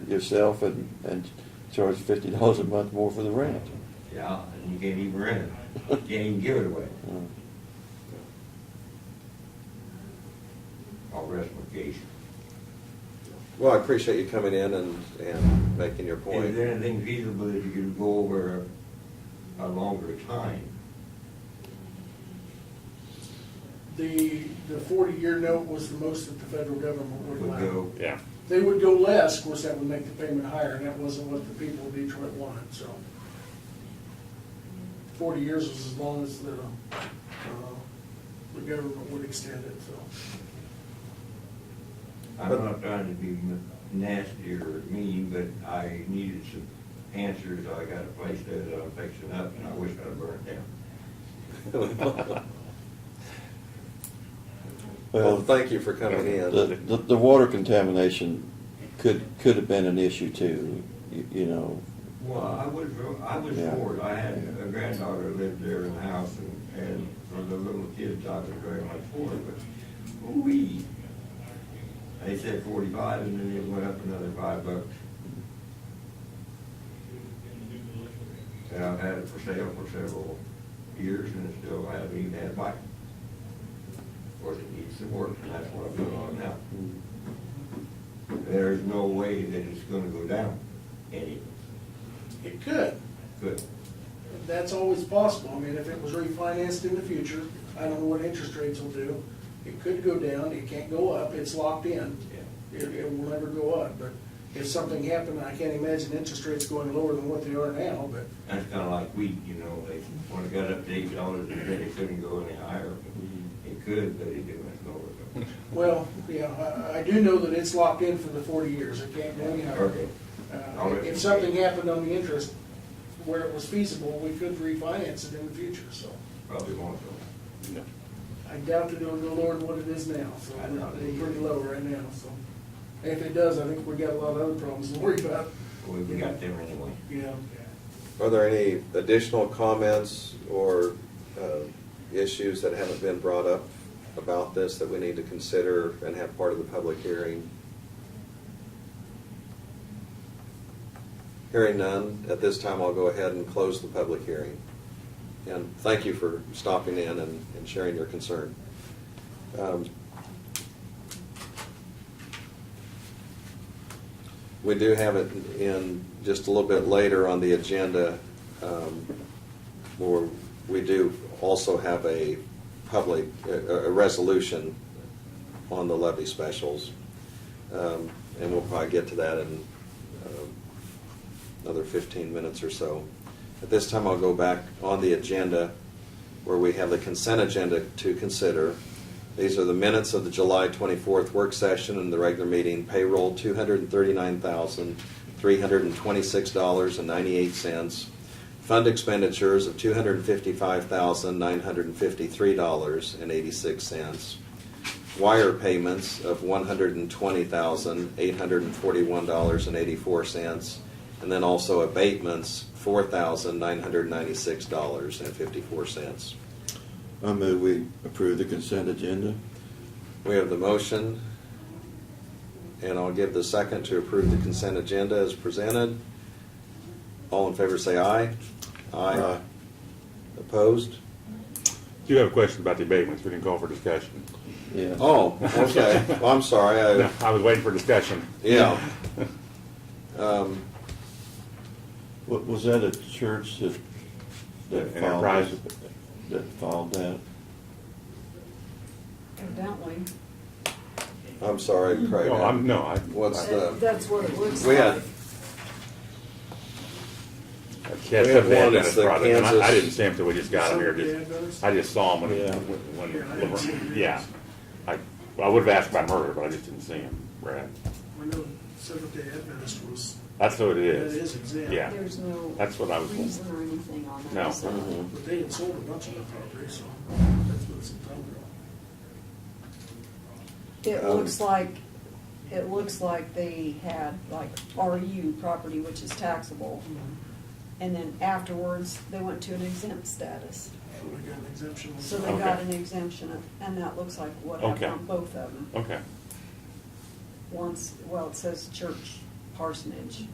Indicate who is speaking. Speaker 1: yourself and, and charge fifty dollars a month more for the rent.
Speaker 2: Yeah, and you can't even rent it. You can't even give it away.
Speaker 1: Uh,
Speaker 2: I'll rest my case.
Speaker 3: Well, I appreciate you coming in and, and making your
Speaker 2: Is
Speaker 3: point.
Speaker 2: there anything feasible that you could go over a longer time?
Speaker 4: The, the forty-year note was the most that the federal government would
Speaker 2: Would
Speaker 4: allow.
Speaker 2: go,
Speaker 5: Yeah.
Speaker 4: They would go less, of course, that would make the payment higher, and that wasn't what the people of Detroit wanted, so. Forty years was as long as the, uh, the government would extend it, so.
Speaker 2: I'm
Speaker 3: But-
Speaker 2: not trying to be m- nasty or mean, but I needed some answers. I got a place that I'm fixing up and I wish I'd burned down.
Speaker 3: Well, thank you for coming
Speaker 1: The,
Speaker 3: in.
Speaker 1: the, the water contamination could, could have been an issue too, you, you know.
Speaker 2: Well, I was, I was
Speaker 1: Yeah.
Speaker 2: bored. I had
Speaker 1: Yeah.
Speaker 2: a granddaughter who lived there in the house and, and for the little kids, I was very much for it, but we. They said forty-five and then it went up another five bucks. And I've had it for sale for several years and it still haven't even had a bite. Of course, it needs some work and that's what I'm doing on now.
Speaker 1: Mm-hmm.
Speaker 2: There's no way that it's gonna go down any,
Speaker 4: It could,
Speaker 2: good.
Speaker 4: that's always possible, I mean, if it was refinanced in the future, I don't know what interest rates will do. It could go down, it can't go up, it's locked in. It, it will never go up, but if something happened, I can't imagine interest rates going lower than what they are now, but
Speaker 2: That's kinda like wheat, you know, they, when it got up to eight dollars, they said it couldn't go any higher. It could, but it didn't go over.
Speaker 4: Well, yeah, I, I do know that it's locked in for the forty years, it can't go any higher.
Speaker 2: Okay.
Speaker 4: Uh, If something happened on the interest where it was feasible, we could refinance it in the future, so.
Speaker 2: Probably won't go.
Speaker 4: I doubt that it'll go lower than what it is now, so
Speaker 2: I doubt it.
Speaker 4: it's pretty low right now, so. If it does, I think we got a lot of other problems to worry about,
Speaker 2: We, we got there anyway.
Speaker 4: you know.
Speaker 3: Are there any additional comments or uh, issues that haven't been brought up about this that we need to consider and have part of the public hearing? Hearing none, at this time I'll go ahead and close the public hearing. And thank you for stopping in and and sharing your concern. Um, We do have it in just a little bit later on the agenda, um, where we do also have a public, a, a resolution on the levy specials. Um, And we'll probably get to that in um, another 15 minutes or so. At this time, I'll go back on the agenda where we have the consent agenda to consider. These are the minutes of the July 24th work session and the regular meeting payroll, $239,326.98. Fund expenditures of $255,953.86 wire payments of one hundred and twenty thousand, eight hundred and forty-one dollars and eighty-four cents, and then also abatements, four thousand, nine hundred and ninety-six dollars and fifty-four cents.
Speaker 1: I move we approve the consent agenda.
Speaker 3: We have the motion, and I'll give the second to approve the consent agenda as presented. All in favor, say aye.
Speaker 1: Aye.
Speaker 3: Opposed?
Speaker 5: Do you have a question about the abatements? We didn't call for discussion.
Speaker 1: Yeah.
Speaker 3: Oh, okay. Well, I'm sorry. I-
Speaker 5: No, I was waiting for discussion.
Speaker 3: Yeah. Um,
Speaker 1: Wa- Was that a church that, that
Speaker 5: The
Speaker 1: filed
Speaker 5: Enterprise?
Speaker 1: that? That filed that?
Speaker 6: Evidently.
Speaker 3: I'm sorry, Craig.
Speaker 5: No, I'm, no, I.
Speaker 3: What's
Speaker 5: I-
Speaker 3: the-
Speaker 6: That- That's what it looks like.
Speaker 3: We had,
Speaker 5: I can't-
Speaker 3: we have
Speaker 5: something
Speaker 3: one,
Speaker 5: had
Speaker 3: it's
Speaker 5: that
Speaker 3: the
Speaker 5: product, and I- I
Speaker 3: Kansas-
Speaker 5: didn't see him till we just got him here, just, I just saw him when,
Speaker 1: Yeah.
Speaker 5: when, when, yeah. I, well, I would've asked about murder, but I just didn't see him, Brad.
Speaker 4: We know Seventh Day Adventist was,
Speaker 5: That's what it
Speaker 4: that
Speaker 5: is.
Speaker 4: is exempt.
Speaker 5: Yeah.
Speaker 6: There's no.
Speaker 5: That's what I was-
Speaker 6: Reason or anything on that.
Speaker 5: No.
Speaker 6: so.
Speaker 3: Mm-hmm.
Speaker 1: Mhm.
Speaker 4: But they had sold a bunch of the property, so that's what it's entitled on.
Speaker 6: It
Speaker 3: Um,
Speaker 6: looks like, it looks like they had like RU property, which is taxable. And then afterwards, they went to an exempt status.
Speaker 4: So we got an exemption.
Speaker 6: So they got
Speaker 5: Okay.
Speaker 6: an exemption of- and that looks like what
Speaker 5: Okay.
Speaker 6: happened on both of them.
Speaker 5: Okay.
Speaker 6: Once, well, it says church parsonage.